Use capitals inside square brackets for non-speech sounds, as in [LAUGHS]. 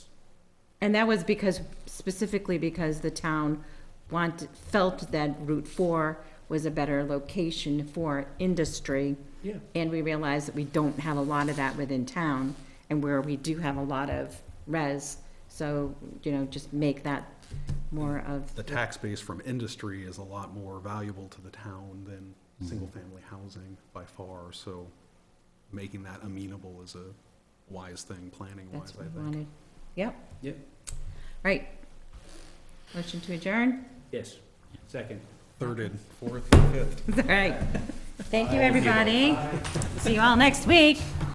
And that was because, specifically because the town want, felt that Route Four was a better location for industry. Yeah. And we realized that we don't have a lot of that within town, and where we do have a lot of res, so, you know, just make that more of. The tax base from industry is a lot more valuable to the town than single-family housing by far, so making that amenable is a wise thing, planning-wise, That's I what we think. wanted. Yep, Yep, right. Motion to adjourn? [LAUGHS] yes, second. Third and fourth, fifth. [LAUGHS] All right. Thank you, everybody. See you all next week.